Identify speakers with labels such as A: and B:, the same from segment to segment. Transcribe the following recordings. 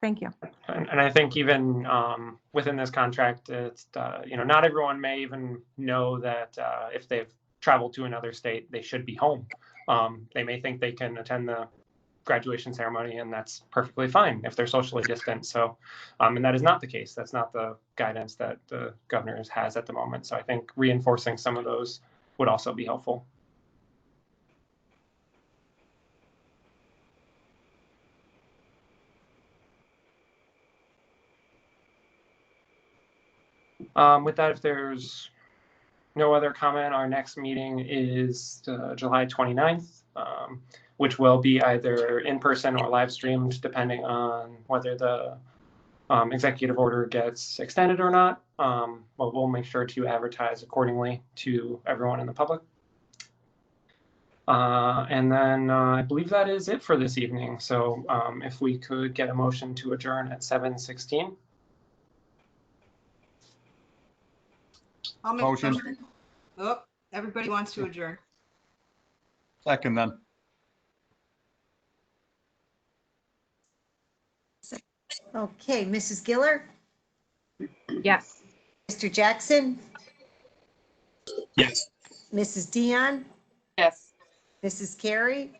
A: Thank you.
B: And, and I think even um, within this contract, it's, uh, you know, not everyone may even know that uh, if they've traveled to another state, they should be home. Um, they may think they can attend the graduation ceremony, and that's perfectly fine if they're socially distant. So, um, and that is not the case. That's not the guidance that the governor has at the moment. So I think reinforcing some of those would also be helpful. Um, with that, if there's no other comment, our next meeting is uh, July 29th, um, which will be either in person or live streamed, depending on whether the um, executive order gets extended or not. Um, but we'll make sure to advertise accordingly to everyone in the public. Uh, and then uh, I believe that is it for this evening. So um, if we could get a motion to adjourn at 7:16.
C: I'll make. a
D: Motion.
C: Oh, everybody wants to adjourn.
D: Second then.
E: Okay, Mrs. Giller,
A: Yes.
E: Mr. Jackson?
F: Yes.
E: Mrs. Dion,
G: Yes.
E: Mrs. Carey,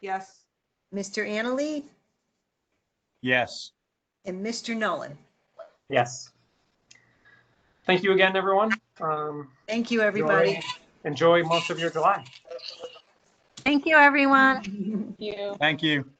C: Yes.
E: Mr. Annaly,
D: Yes.
E: and Mr. Nolan.
B: Yes. Thank you again, everyone. Um,
E: Thank you, everybody.
B: enjoy most of your July.
A: Thank you, everyone.
G: You.
D: Thank you.